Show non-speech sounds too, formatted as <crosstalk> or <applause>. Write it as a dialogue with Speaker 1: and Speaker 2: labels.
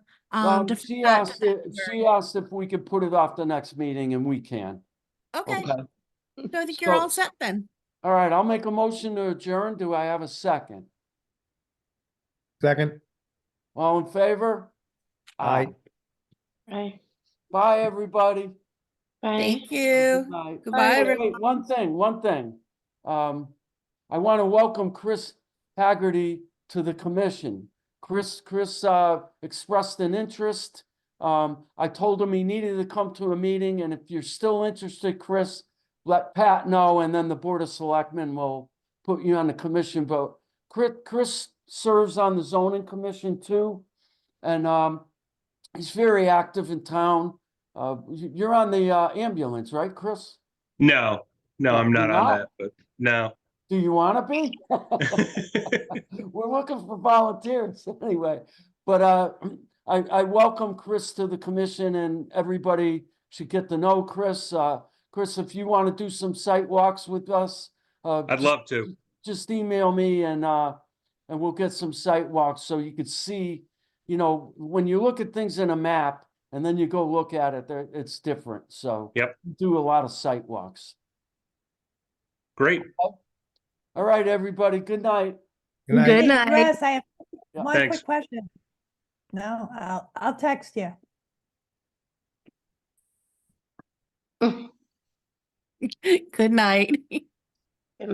Speaker 1: Um,
Speaker 2: Um,
Speaker 1: to
Speaker 2: she
Speaker 1: that
Speaker 2: asked, if- she asked if we could put it off the next meeting and we can.
Speaker 1: okay, so I think you're
Speaker 2: So-
Speaker 1: all set then.
Speaker 2: All right, I'll make a motion to adjourn. Do I have a second?
Speaker 3: Second,
Speaker 2: All in favor?
Speaker 3: Aye.
Speaker 4: Bye.
Speaker 2: Bye, everybody.
Speaker 4: Bye.
Speaker 1: Thank you.
Speaker 2: Good night.
Speaker 1: Goodbye,
Speaker 2: Wait,
Speaker 1: everyone.
Speaker 2: wait, One thing, one thing. Um, I want to welcome Chris Haggerty to the commission. Chris, Chris, uh, expressed an interest. Um, I told him he needed to come to a meeting and if you're still interested, Chris, let Pat know and then the Board of Selectmen will put you on the commission vote. Chris, Chris serves on the zoning commission too. And, um, he's very active in town. Uh, y- you're on the, uh, ambulance, right, Chris?
Speaker 5: No, no, I'm
Speaker 2: You're
Speaker 5: not on
Speaker 2: not?
Speaker 5: that, but no.
Speaker 2: Do you want to be? <laughs> We're looking for volunteers <laughs> anyway. But uh, <clears throat> I, I welcome Chris to the commission and everybody should get to know Chris. Uh, Chris, if you want to do some site walks with us, uh,
Speaker 5: <laughs> I'd
Speaker 2: just-
Speaker 5: love to.
Speaker 2: just email me and uh, and we'll get some site walks so you could see, you know, when you look at things in a map and then you go look at it, there, it's different. So
Speaker 5: Yep.
Speaker 2: do a lot of site walks.
Speaker 5: Great.
Speaker 2: All right, everybody. Good night.
Speaker 3: good night.
Speaker 6: Hey,
Speaker 1: night.
Speaker 6: Russ, I have
Speaker 2: Yeah.
Speaker 6: one
Speaker 5: Thanks.
Speaker 6: quick question. No, I'll, I'll text you.
Speaker 1: <laughs> Good night.